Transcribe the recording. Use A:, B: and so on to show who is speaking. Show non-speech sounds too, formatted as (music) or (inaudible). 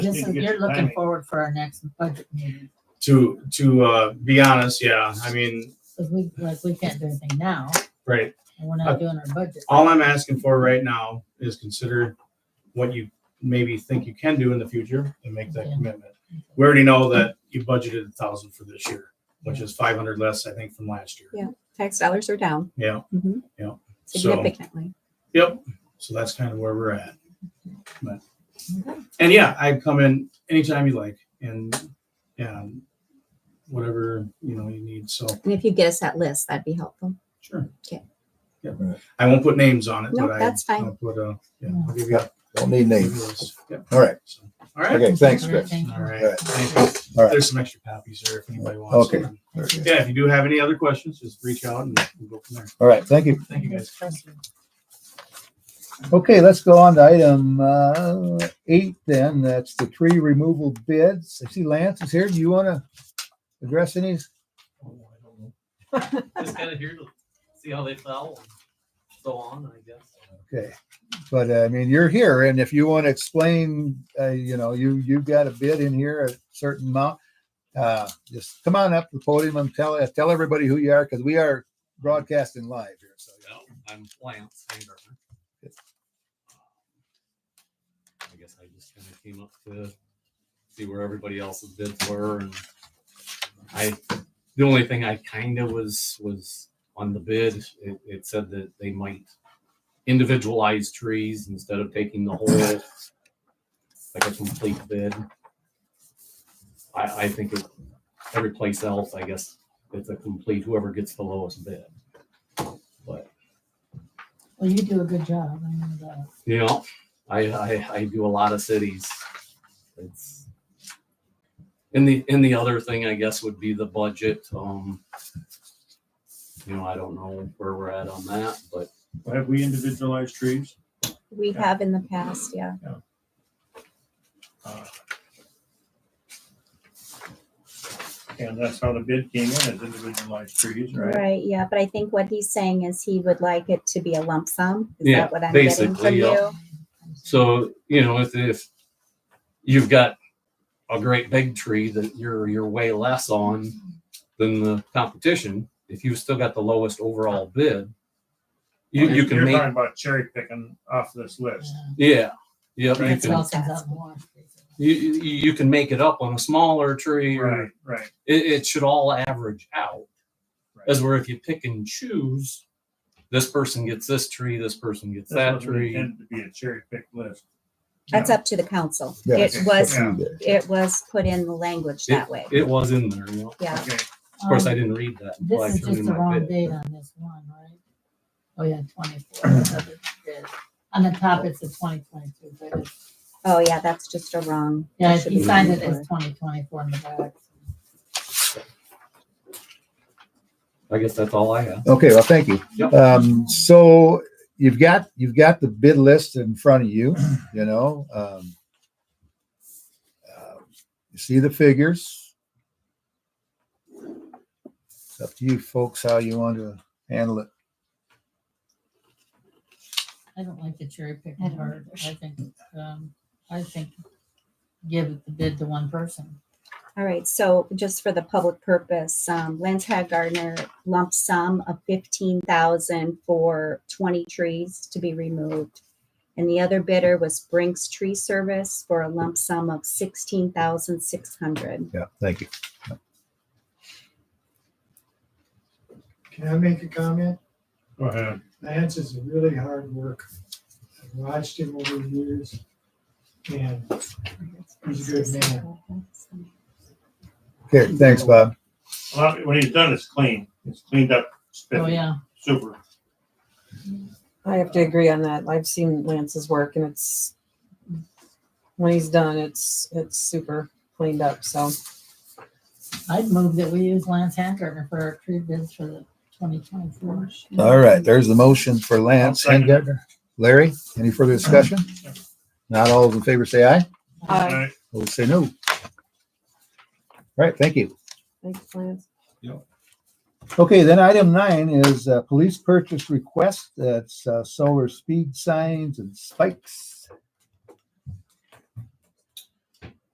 A: Listen,
B: get
A: you're
B: your
A: looking
B: timing.
A: forward for our next budget meeting,
B: To, to, uh, be honest, yeah, I mean,
A: because we, like, we can't do anything now,
B: right,
A: and we're
B: Uh,
A: not doing our budget.
B: All I'm asking for right now is consider what you maybe think you can do in the future and make that
A: Yeah.
B: commitment. We already know that you budgeted a thousand for this year, which is five hundred less, I think, from last year.
C: Tax dollars are down
B: Yeah,
A: Mm-hmm.
C: Mhm.
B: Yeah. So-
C: significantly.
B: yep. So that's kind of where we're at. But,
C: Okay.
B: and yeah, I come in anytime you like and, and whatever, you know, you need. So,
C: And if you get us that list, that'd be helpful.
B: sure.
C: Okay.
B: Yep. I won't put names on it,
C: Nope,
B: but I.
C: that's fine. Mm.
B: I'll put, uh, yeah, I'll give you a-
D: Don't need
B: give
D: names.
B: you a list. Yep.
D: All right.
B: So, All right.
D: Okay, thanks, Chris.
A: Thank you.
B: All right.
D: All right.
B: Thank you.
D: All right.
B: There's some extra copies there if anybody wants.
D: Okay.
B: them.
D: Very good.
B: Yeah, if you do have any other questions, just reach out and we'll go from there.
D: All right, thank you.
B: Thank you, guys.
D: Okay, let's go on to item uh, eight then. That's the tree removal bids. I see Lance is here. Do you want to address any?
E: (laughs) just kind of here to see how they fell and so on, I guess.
D: Okay. But uh, I mean, you're here and if you want to explain, uh, you know, you, you've got a bid in here, a certain amount. Uh, just come on up to the podium and tell, tell everybody who you are because we are broadcasting live here. So
E: Well, I'm Lance Hangartner. I guess I just kind of came up to see where everybody else's bids were and I, the only thing I kind of was, was on the bid, it, it said that they might individualize trees instead of taking the whole, like a complete bid. I, I think it, every place else, I guess, it's a complete, whoever gets the lowest bid. But
A: Well, you do a good job. I know that.
E: you know, I, I I do a lot of cities. It's and the and the other thing I guess would be the budget. Um, you know, I don't know where we're at on that, but
F: Have we individualized trees?
C: We
F: Yeah.
C: have in the past, yeah.
F: Uh, And that's how the bid came in, as individualized trees, right?
C: Right, yeah, but I think what he's saying is he would like it to be a lump sum. Is
E: Yeah,
C: that what I'm getting
E: basically,
C: from
E: yeah.
C: you?
E: so you know if if you've got a great big tree that you're you're way less on than the competition, if you've still got the lowest overall bid, you you can
F: You're
E: make
F: talking about cherry picking off this list.
A: Yeah.
E: yeah yeah you
A: uh, That's
E: can,
A: all comes out in the wash, basically.
E: you, you you can make it up on a smaller tree or
F: Right, right.
E: it, it should all average out.
F: Right.
E: As where if you pick and choose, this person gets this tree, this person gets
F: This
E: that
F: wasn't
E: tree.
F: Intended to be a cherry pick list.
C: That's up to the council.
D: Yeah,
C: It
F: okay.
C: (laughs) was,
F: Yeah.
C: it was put in the language that way.
E: It was in there, you know.
C: Yeah,
F: Okay,
E: Of course, I
A: Um,
E: didn't read that. until I
A: This is
E: turned
A: just
E: in
A: the
E: my
A: wrong
E: bid.
A: date on this one, right? Oh, yeah, twenty-four. On the top, it's the twenty twenty-two, but it's
C: oh, yeah, that's just a wrong.
A: Yeah,
C: it should
A: he
C: be
A: signed it
C: 24.
A: as twenty twenty-four in the back.
E: I guess that's all I have.
D: Okay, well, thank you.
E: Yep.
D: Um, so you've got, you've got the bid list in front of you, you know, um. uh, You see the figures. It's up to you folks how you want to handle it.
A: I don't like the cherry
C: I
A: picking
C: don't
A: part. I think, um, I think give the bid to one person.
C: All right, so just for the public purpose, um, Lance had Gardner lump sum of fifteen thousand for twenty trees to be removed. And the other bidder was Brink's Tree Service for a lump sum of sixteen thousand six hundred.
D: Yeah, thank you.
G: Can I make a comment?
F: go ahead.
G: Lance is a really hard worker. I've watched him over the years and he's a good man.
D: Okay, thanks, Bob.
F: A lot of- When he's done, it's clean. It's cleaned up.
A: Oh,
F: spiffy,
A: yeah.
F: Super.
H: I have to agree on that. I've seen Lance's work and it's when he's done, it's it's super cleaned up. So
A: I'd move that we use Lance Handgartner for our tree bids for the twenty twenty-four.
D: All right, there's the motion for Lance
F: I'll
D: and
F: second it.
D: Gardner. Larry, any further discussion? Not all those in favor say aye.
H: Aye.
F: All right,
D: Those say no. All right, thank you.
H: thanks, Lance.
D: Okay, then item nine is uh, police purchase request. That's uh, solar speed signs and spikes.